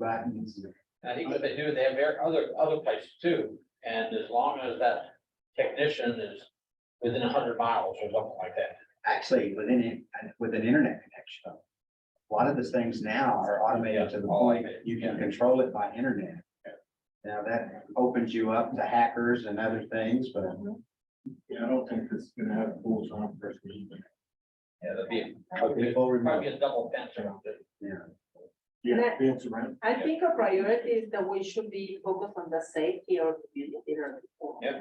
that needs to. I think what they do, they have their other, other places too, and as long as that technician is within a hundred miles or something like that. actually within it, with an internet connection. A lot of the things now are automated to the point you can control it by internet. Now that opens you up to hackers and other things, but. Yeah, I don't think it's gonna have full time person even. Yeah, that'd be, Okay, full remote. probably a double fence around it. Yeah, That- fence around. I think our priority is that we should be focused on the safety of the community. or- Yeah.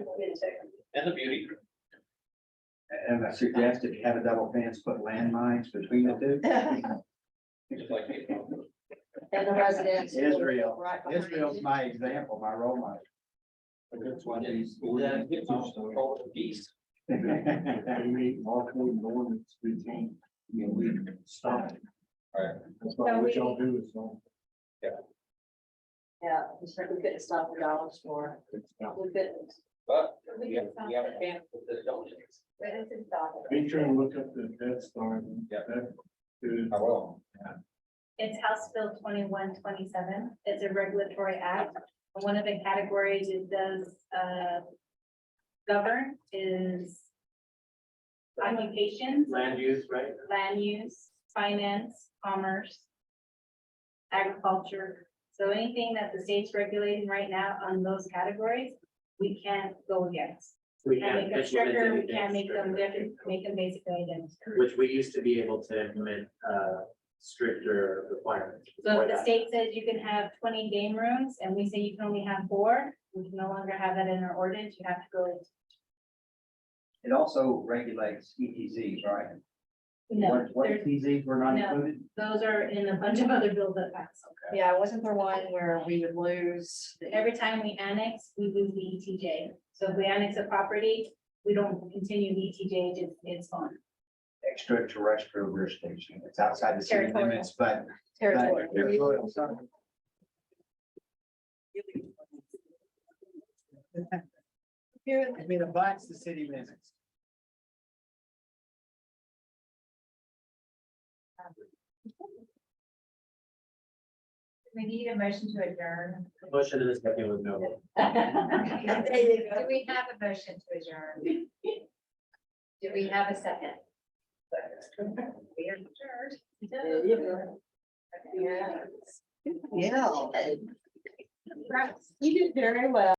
And the beauty. And I suggest if you have a double fence, put landmines between the two. Just like people. And the residents. Israel, Right behind Israel's it. my example, my role model. But that's why these. Then it gets off the control of the beast. They need all code and ordinance to be changed. You know, we stop. it. Right. That's why what y'all do is don't. Yeah, we certainly couldn't stop the dollar store. it's not- We couldn't. But we have, we have a chance with this, don't we? Be sure and look up the Dead Star. and Yeah. that is- I will. It's House Bill twenty-one twenty-seven. It's a regulatory act. One of the categories it does, uh, govern is occupations, Land use, right? land use, finance, commerce, agriculture. So anything that the state's regulating right now on those categories, we can't go against. We Can't make can't them implement stricter, we anything can't make them, stricter, different, make them basically identical. Which we used to be able to implement uh stricter requirements. So before if the that. state says you can have twenty game rooms and we say you can only have four, we can no longer have that in our ordinance, you have to go. It also regulates ETZs, right? No, What, what there's- ETZs were not No. included? those are in a bunch of other bills that pass. Yeah, it wasn't for one where we would lose. the- Every time we annex, we lose the ETJ. So if we annex a property, we don't continue the E ETJ, it's, it's on. extraterrestrial rear station. It's outside the city Territorial. limits, but. Territory. But it abides the city limits. We need a motion to adjourn. Motion in a second with no. vote. There you go. we have a motion to adjourn? Do we have a second? We are There you go. Yeah. Yeah. You did very well.